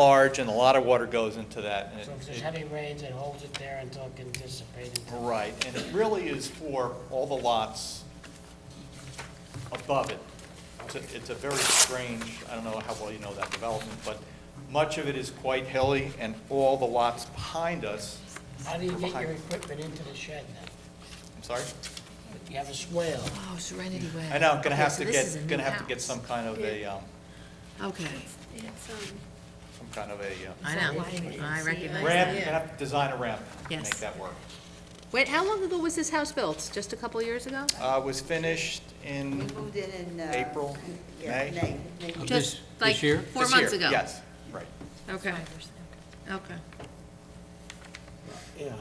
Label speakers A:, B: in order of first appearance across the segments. A: large and a lot of water goes into that. and it-
B: So if
A: it-
B: there's heavy rains, it holds it there until it can dissipate. until-
A: Right, and it really is for all the lots above it. It's a- It's a very strange, I don't know how well you know that development, but much of it is quite hilly, and all the lots behind us,
B: How do you get your
A: Behind.
B: equipment into the shed then?
A: I'm sorry?
B: You have a swale.
C: Oh, Serenity Way.
A: I know, I'm gonna
C: Okay,
A: have
C: so
A: to
C: this is a
A: get,
C: new
A: gonna have to
C: house.
A: get some kind of a, um,
C: Okay,
D: It's, um,
A: some kind of a uh,
C: I
D: that
C: know,
D: wide you
C: I
D: can see it?
C: recognize
A: ramp,
C: that.
A: gonna have to design a ramp to make
C: Yes.
A: that work.
C: Wait, how long ago was this house built? Just a couple years ago?
A: Uh, was finished
D: we
A: in,
D: moved in in. uh,
A: April,
D: Yeah,
A: May?
D: May, May.
B: Uh,
C: Just
E: this
C: like
E: year?
C: four
A: this year,
C: months ago?
A: Yes, right.
C: Okay, okay.
B: Yeah.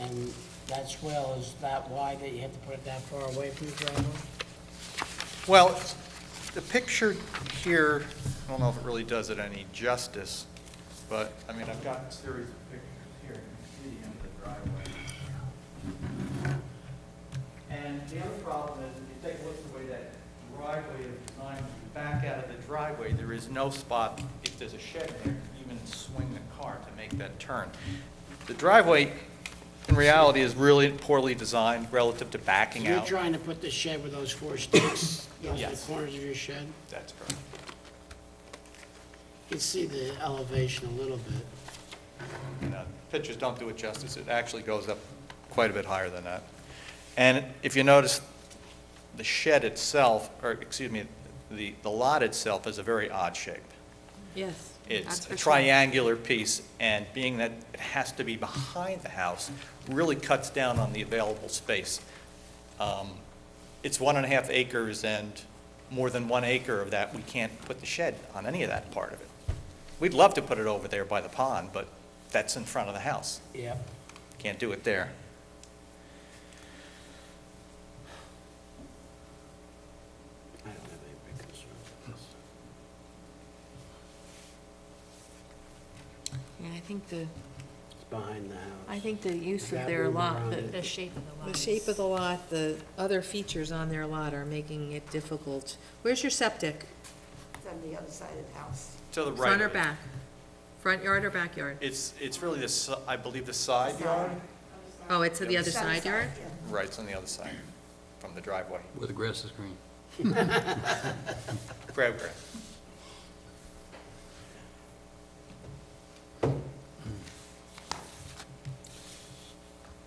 B: And that swale is that wide that you have to put it that far away from the driveway?
A: Well, the picture here, I don't know if it really does it any justice, but, I mean, I've got a series of pictures here, you can see the end of the driveway. And the other problem is, if you take a look at the way that driveway is designed, you back out of the driveway, there is no spot, if there's a shed there, to even swing the car to make that turn. The driveway, in reality, is really poorly designed relative to backing
B: You're
A: out.
B: trying to put the shed with those four sticks, those are the
A: Yes.
B: corners of your shed?
A: That's correct.
B: You can see the elevation a little bit.
A: you know, uh, pictures don't do it justice. It actually goes up quite a bit higher than that. And if you notice, the shed itself, or excuse me, the, the lot itself is a very odd shape.
C: Yes.
A: It's a triangular piece, and being that it has to be behind the house, really cuts down on the available space. Um, It's one and a half acres, and more than one acre of that, we can't put the shed on any of that part of it. We'd love to put it over there by the pond, but that's in front of the house.
B: Yep.
A: Can't do it there.
B: I don't have any big concern with this.
C: Yeah, I think the,
B: It's behind the house.
C: I think the use of
B: That
C: their
B: room
C: lot,
B: around
C: the.
B: it.
C: The shape of the lot. The shape of the lot, the other features on their lot are making it difficult. Where's your septic?
D: It's on the other side of the house.
A: To the right.
C: Front or back? Front yard or backyard?
A: It's, it's really the, si- I believe, the side yard.
C: Oh, it's to the other
D: It's on the
C: side yard?
D: yeah.
A: Right, it's on the other side from the driveway.
E: Where the grass is green.
A: Grab, grab.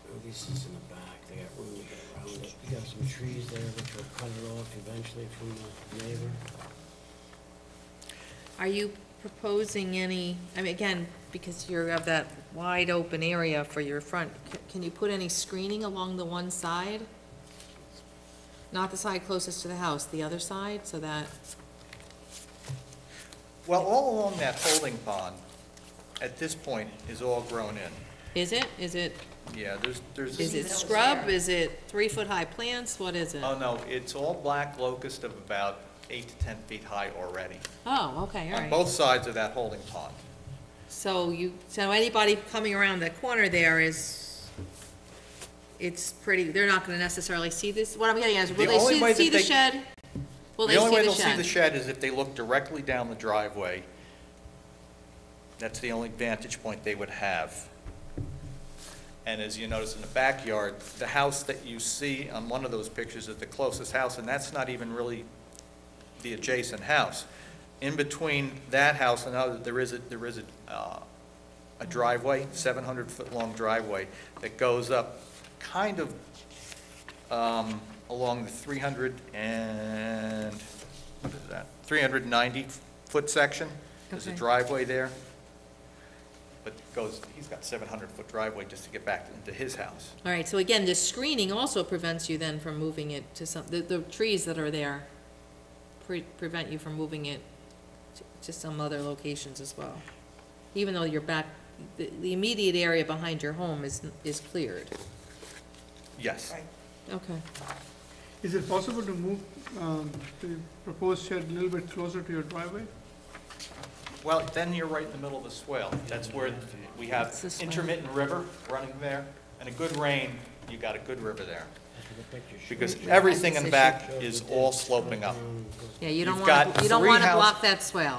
B: Oh, This is in the back, they got room to get around it. You got some trees there which will cut it off eventually from the neighbor.
C: Are you proposing any, I mean, again, because you're of that wide open area for your front, c- can you put any screening along the one side? Not the side closest to the house, the other side, so that,
A: Well, all along that holding pond, at this point, is all grown in.
C: is it, is it,
A: Yeah, there's, there's.
C: is it scrub, is it three-foot-high plants, what is it?
A: Oh, no, it's all black locust of about eight to 10 feet high already,
C: Oh, okay,
A: on
C: all right.
A: both sides of that holding pond.
C: So you, so anybody coming around the corner there is, it's pretty, they're not gonna necessarily see this, what I'm getting at is,
A: The
C: will they
A: only way that
C: see, see the
A: they-
C: shed? Will they
A: The only way they'll see
C: shed?
A: the shed is if they look directly down the driveway. That's the only vantage point they would have. And as you notice in the backyard, the house that you see on one of those pictures is the closest house, and that's not even really the adjacent house. In between that house and other, there is a, there is a, uh, a driveway, 700-foot-long driveway that goes up kind of um, along the 300 and, what is that? 390-foot section. There's a
C: Okay.
A: driveway there. But goes, he's got 700-foot driveway just to get back into his house.
C: All right, so again, this screening also prevents you then from moving it to some, the, the trees that are there pre- prevent you from moving it to- to some other locations as well. Even though your back, the, the immediate area behind your home is, is cleared.
A: Yes.
D: Right.
C: Okay.
F: Is it possible to move um, the proposed shed a little bit closer to your driveway?
A: Well, then you're right in the middle of the swale. That's where we have
C: It's the swale.
A: intermittent river running there, and a good rain, you got a good river there.
B: That's
E: the picture. shows.
A: Because
E: Shows
A: everything in
C: Decision.
A: back
E: the
A: is
E: deck
A: all
E: comes
A: sloping up.
E: down and goes
C: Yeah, you don't
A: You've
C: want,
A: got
C: you don't
A: three
C: want to
A: house-
C: block that swell.